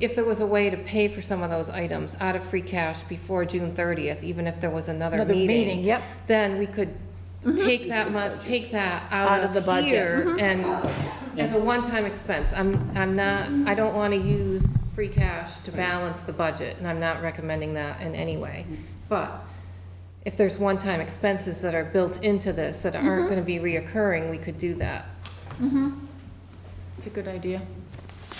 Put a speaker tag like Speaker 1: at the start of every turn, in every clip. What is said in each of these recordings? Speaker 1: if there was a way to pay for some of those items out of free cash before June thirtieth, even if there was another
Speaker 2: Another
Speaker 1: meeting.
Speaker 2: meeting, yep.
Speaker 1: Then we could
Speaker 3: Mm-hmm.
Speaker 1: take that mon, take that out of
Speaker 2: the budget, Mm-hmm.
Speaker 1: here and as a one-time expense. I'm, I'm not, I don't wanna use free cash to balance the budget, and I'm not recommending that in any way.
Speaker 3: Mm-hmm.
Speaker 1: But if there's one-time expenses that are built into this that
Speaker 2: Mm-hmm.
Speaker 1: aren't gonna be reoccurring, we could do that.
Speaker 2: It's a good idea.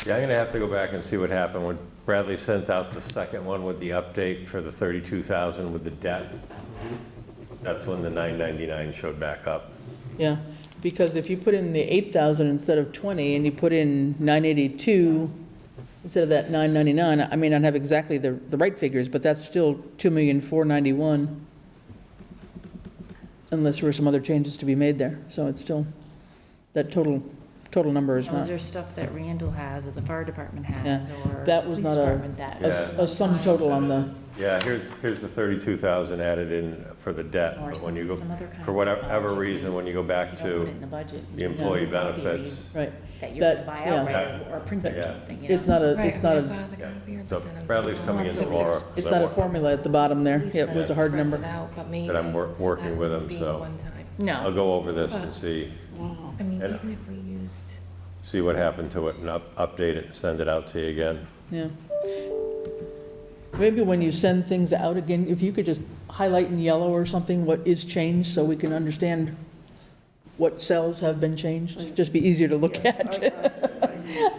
Speaker 4: Yeah, I'm gonna have to go back and see what happened when Bradley sent out the second one with the update for the 32,000 with the debt. That's when the 999 showed back up.
Speaker 3: Yeah, because if you put in the 8,000 instead of 20, and you put in 982 instead of that 999, I may not have exactly the, the right figures, but that's still 2,491,000, unless there were some other changes to be made there, so it's still, that total, total number is
Speaker 2: Those
Speaker 3: not,
Speaker 2: are stuff that Randall has, or the fire department
Speaker 3: yeah.
Speaker 2: has, or.
Speaker 3: That was
Speaker 2: police
Speaker 3: not a,
Speaker 2: department that-
Speaker 3: a s- a sum total on the,
Speaker 4: Yeah, here's, here's the 32,000 added in for the debt,
Speaker 2: Or
Speaker 4: but when you go,
Speaker 2: some other kind
Speaker 4: for
Speaker 2: of
Speaker 4: whatever
Speaker 2: technology,
Speaker 4: reason, when you go back
Speaker 2: You don't put it
Speaker 4: to
Speaker 2: in the budget.
Speaker 4: the employee
Speaker 2: Yeah. Copy
Speaker 4: benefits,
Speaker 3: right.
Speaker 2: That you're
Speaker 3: That-
Speaker 2: gonna buy
Speaker 3: yeah.
Speaker 2: outright, or- or print it or
Speaker 4: Yeah.
Speaker 2: something, you know?
Speaker 3: It's not a,
Speaker 1: Right,
Speaker 3: it's not
Speaker 1: I
Speaker 3: a,
Speaker 1: thought the
Speaker 4: Yeah.
Speaker 1: copier,
Speaker 4: so
Speaker 1: but then I'm-
Speaker 4: Bradley's coming in
Speaker 1: Lots of
Speaker 4: tomorrow. 'cause
Speaker 3: it's
Speaker 4: I'm
Speaker 3: not a
Speaker 4: working-
Speaker 3: formula at the bottom there, it was a hard number.
Speaker 1: Spreads it out, but maybe-
Speaker 4: That I'm wor-
Speaker 1: so
Speaker 4: working
Speaker 1: that
Speaker 4: with
Speaker 1: would
Speaker 4: them,
Speaker 1: be
Speaker 4: so.
Speaker 1: one time.
Speaker 4: I'll
Speaker 2: No,
Speaker 4: go over this and see,
Speaker 1: I mean,
Speaker 4: And-
Speaker 1: even if we used,
Speaker 4: see what happened to it and up- update it and send it out to you again.
Speaker 3: Yeah. Maybe when you send things out again, if you could just highlight in yellow or something what is changed so we can understand what cells have been changed, just be easier to look at.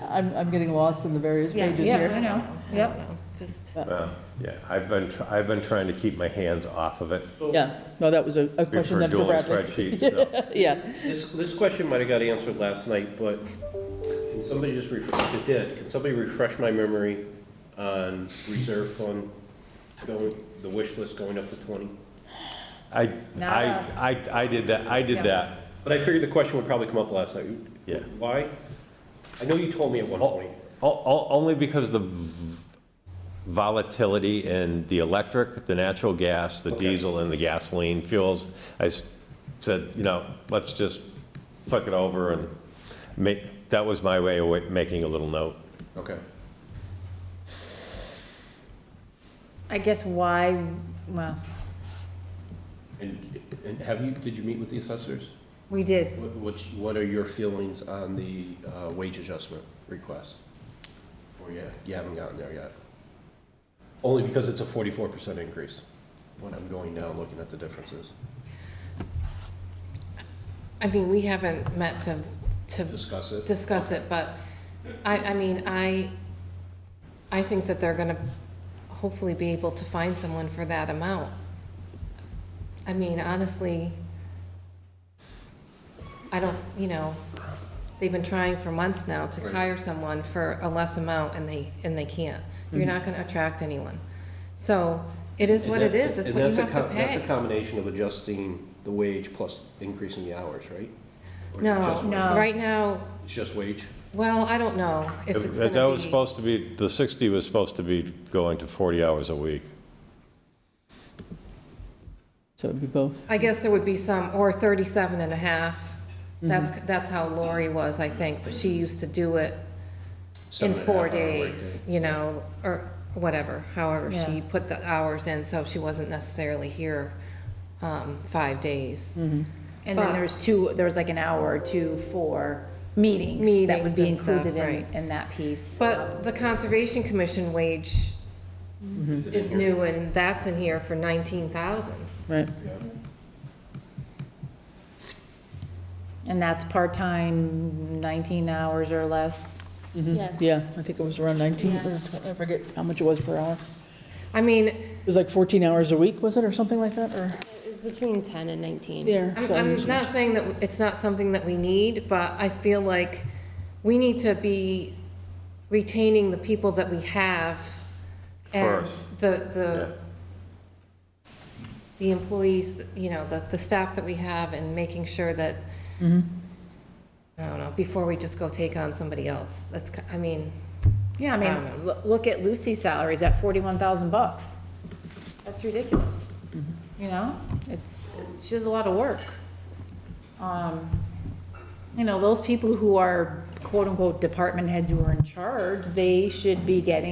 Speaker 3: I'm, I'm getting lost in the various
Speaker 2: yeah,
Speaker 3: pages
Speaker 2: yeah, I
Speaker 3: here.
Speaker 2: know,
Speaker 1: I don't
Speaker 2: yep.
Speaker 1: know, just,
Speaker 4: Well, yeah, I've been, tr- I've been trying to keep my hands off of it
Speaker 3: Yeah, no, that was a a question
Speaker 4: for
Speaker 3: then for
Speaker 4: doing
Speaker 3: Bradley.
Speaker 4: spreadsheets, so.
Speaker 3: Yeah,
Speaker 5: This, this question might have got answered last night, but can somebody just refresh, it did, can somebody refresh my memory on reserve fund going, the wish list going up to twenty?
Speaker 4: I,
Speaker 2: Not
Speaker 4: I,
Speaker 2: us.
Speaker 4: I, I did that, I
Speaker 2: Yeah.
Speaker 4: did that.
Speaker 5: But I figured the question would probably come up last night.
Speaker 4: Yeah.
Speaker 5: Why? I know you told me at one
Speaker 4: O-
Speaker 5: point.
Speaker 4: o- o- Only because the v- volatility in the electric, the natural gas, the
Speaker 5: Okay.
Speaker 4: diesel and the gasoline fuels, I s- said, you know, let's just flick it over and make, that was my way of wa- making a little note.
Speaker 5: Okay.
Speaker 2: I guess why, well,
Speaker 5: And, and have you, did you meet with the assessors?
Speaker 2: we did,
Speaker 5: What, which- what are your feelings on the uh, wage adjustment request? Or yeah, you haven't gotten there yet? Only because it's a forty-four percent increase, when I'm going down, looking at the differences,
Speaker 1: I mean, we haven't met to, to
Speaker 5: discuss it.
Speaker 1: discuss it, but I, I mean, I, I think that they're gonna hopefully be able to find someone for that amount. I mean, honestly, I don't, you know, they've been trying for months now to
Speaker 5: Right.
Speaker 1: hire someone for a less amount and they, and they can't. You're not gonna attract anyone. So it is what it is, it's
Speaker 5: And
Speaker 1: what you
Speaker 5: that's a
Speaker 1: have to
Speaker 5: com-
Speaker 1: pay.
Speaker 5: That's a combination of adjusting the wage plus increasing the hours, right? Or
Speaker 1: No,
Speaker 5: just wage?
Speaker 2: No.
Speaker 1: right now,
Speaker 5: It's just wage?
Speaker 1: well, I don't know if it's gonna be.
Speaker 4: That was supposed to be, the 60 was supposed to be going to 40 hours a week.
Speaker 3: so it'd be both.
Speaker 1: I guess there would be some, or 37 and a half. That's, that's how Lori was, I think, but she used to do it in
Speaker 5: Seven and a
Speaker 1: four
Speaker 5: half hour workday.
Speaker 1: days, you know, or whatever, however she
Speaker 2: Yeah.
Speaker 1: put the hours in, so she wasn't necessarily here um, five days.
Speaker 2: and then there was two, there was like an hour or two for meetings that
Speaker 1: Meetings
Speaker 2: would be
Speaker 1: and stuff,
Speaker 2: included in,
Speaker 1: right.
Speaker 2: in that piece.
Speaker 1: But the Conservation Commission wage is new, and that's in here for 19,000.
Speaker 3: Right,
Speaker 2: And that's part-time, nineteen hours or less.
Speaker 6: Yes.
Speaker 3: Mm-hmm. yeah, I think it was around 19, or 20 I forget how much it was per hour.
Speaker 1: I mean,
Speaker 3: It was like 14 hours a week, was it, or something like that, or?
Speaker 6: It was between 10 and 19.
Speaker 3: Yeah.
Speaker 1: I'm,
Speaker 3: so-
Speaker 1: I'm not saying that it's not something that we need, but I feel like we need to be retaining the people that we have. and
Speaker 4: First.
Speaker 1: The,
Speaker 4: Yeah.
Speaker 1: the, the employees, you know, the, the staff that we have and making sure that, I don't know, before we just go take on somebody else. That's, ki- I mean,
Speaker 2: Yeah, I
Speaker 1: I don't
Speaker 2: mean, loo- look at Lucy's salary, it's at forty-one thousand bucks. That's ridiculous. You know, it's, she does a lot of work. Um, You know, those people who are quote-unquote department heads who are in charge, they should be getting